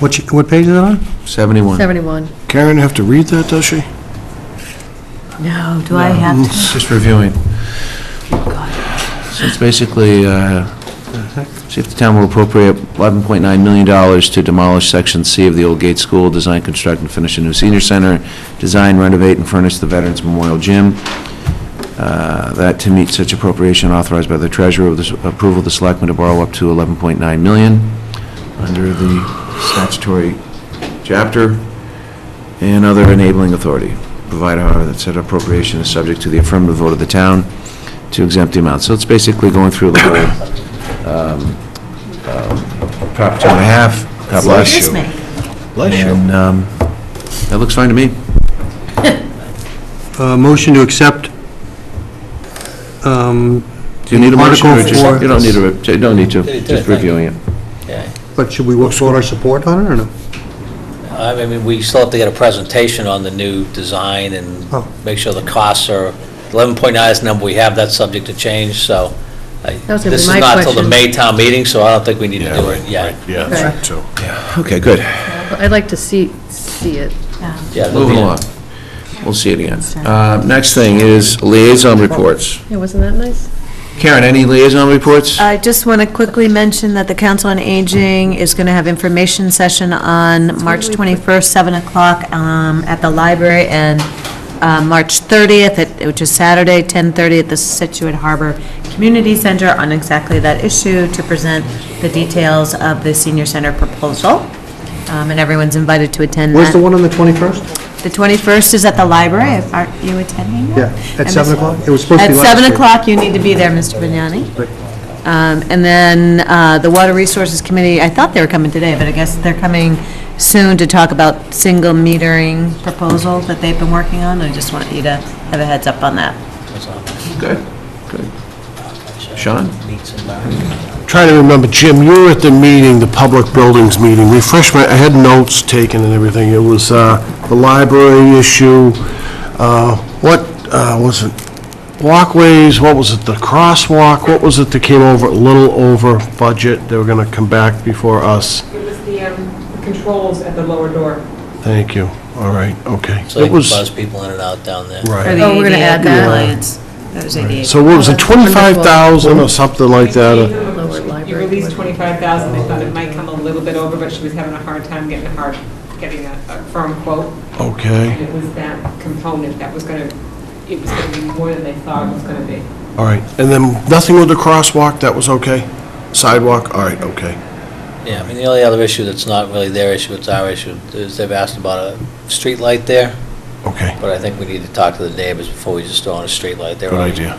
What, ch- what page is it on? 71. 71. Karen have to read that, does she? No, do I have to? Just reviewing. So it's basically, uh, see if the town will appropriate $11.9 million to demolish Section C of the Old Gate School, design, construct, and finish a new senior center, design, renovate, and furnish the Veterans Memorial Gym. Uh, That to meet such appropriation authorized by the treasurer, with the approval of the selectmen to borrow up to 11.9 million under the statutory chapter and other enabling authority. Provide, however, that said appropriation is subject to the affirmative vote of the town to exempt the amount. So it's basically going through the whole, um, uh, Prop two and a half. God bless you. And, um, that looks fine to me. Uh, Motion to accept um, Do you need a motion? or Article just- four. You don't need to, you don't need to, Did it, just did it, reviewing it. Yeah. But should we vote our support on it, or no? I mean, we still have to get a presentation on the new design Oh. and make sure the costs are, 11.9 is the number we have, that's subject to change, so. I- That was gonna be This is my not till the question. May town meeting, so I don't think we need to do it yet. Yeah, that's that's right, so. Okay, good. I'd like to see, see it. Yeah, there'll Moving be a- along. We'll see it again. Uh, next thing is liaison reports. Yeah, wasn't that nice? Karen, any liaison reports? I just want to quickly mention that the Council on Aging is going to have information session on March 21st, 7 o'clock um, at the library, and uh, March 30th, at- which is Saturday, 10:30 at the Situate Harbor Community Center on exactly that issue to present the details of the senior center proposal, Um, and everyone's invited to attend that. Where's the one on the 21st? The 21st is at the library, If- aren't you attending that? Yeah, at I 7 missed- o'clock? It was supposed to be last At 7 year. o'clock, you need to be there, Mr. Vignani. Um, And then uh, the Water Resources Committee, I thought they were coming today, but I guess they're coming soon to talk about single metering proposal that they've been working on, I just want you to have a heads up on that. Good, good. Sean? Trying to remember, Jim, you were at the meeting, the public buildings meeting, refresh my, I had notes taken and everything, it was uh, the library issue, uh, what uh, was it, walkways, what was it, the crosswalk, what was it that came over, a little over budget, they were going to come back before us, It was the um, the controls at the lower door. thank you, all right, okay. So you It can was- buzz people in and out down there. For Right, the Oh, we're gonna ADA add that. compliance. That was ADA. so what was it, 25,000 or something like that? uh, Lower library. You released 25,000, they thought it might come a little bit over, but she was having a hard time getting a hard, getting a a firm quote. Okay. And it was that component that was going to, it was going to be more than they thought it was going to be. All right, and then nothing with the crosswalk, that was okay? Sidewalk, all right, okay. Yeah, I mean, the only other issue that's not really their issue, it's our issue, is they've asked about a street light there, Okay, but I think we need to talk to the neighbors before we just throw on a street light. They're good already- idea.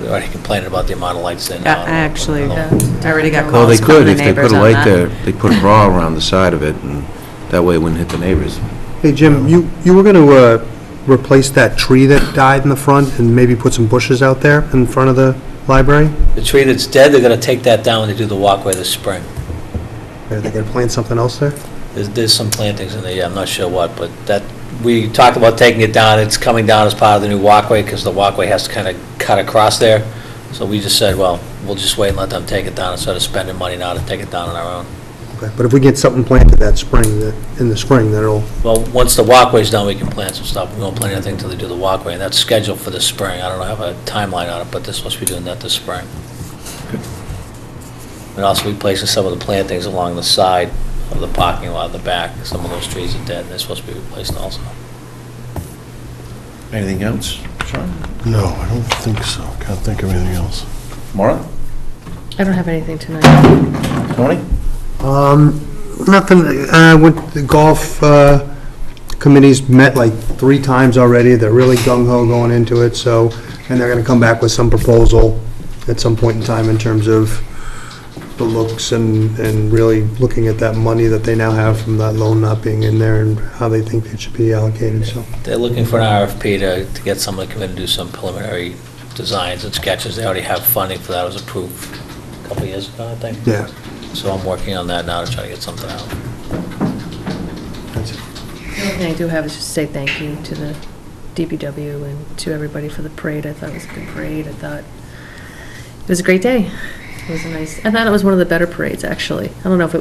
They're already complaining about the amount of lights they I now. actually Yeah. already got Well, they calls from could, the if they put neighbors a on light that. there, they put a bra around the side of it, and that way it wouldn't hit the neighbors. Hey, Jim, you, you were going to replace that tree that died in the front and maybe put some bushes out there in front of the library? The tree that's dead, they're going to take that down when they do the walkway this spring. Are they going to plant something else there? There's, there's some plantings in there, yeah, I'm not sure what, but that, we talked about taking it down, it's coming down as part of the new walkway, because the walkway has to kind of cut across there. So we just said, well, we'll just wait and let them take it down instead of spending money now to take it down on our own. Okay, But if we get something planted that spring, that- in the spring, then it'll, Well, once the walkway's done, we can plant some stuff, we won't plant anything until they do the walkway, and that's scheduled for this spring, I don't have a timeline on it, but they're supposed to be doing that this spring. And also replacing some of the plantings along the side of the parking lot in the back, some of those trees are dead, and they're supposed to be replaced also. Anything else? No, I don't think so, can't think of anything else. Maura? I don't have anything tonight. Tony? Um, nothing, uh, with the golf, uh, committees met like three times already, they're really gung-ho going into it, so, and they're gonna come back with some proposal at some point in time in terms of the looks and, and really looking at that money that they now have from that loan not being in there and how they think it should be allocated, so. They're looking for an RFP to, to get someone to come in and do some preliminary designs and sketches. They already have funding for that, it was approved a couple of years ago, I think. Yeah. So I'm working on that now to try to get something out. that's it. The only thing I do have is just say thank you to the DPW and to everybody for the parade. I thought it was a good parade. I thought it was a great day. It was a nice, I thought it was one of the better parades, actually. I don't know if it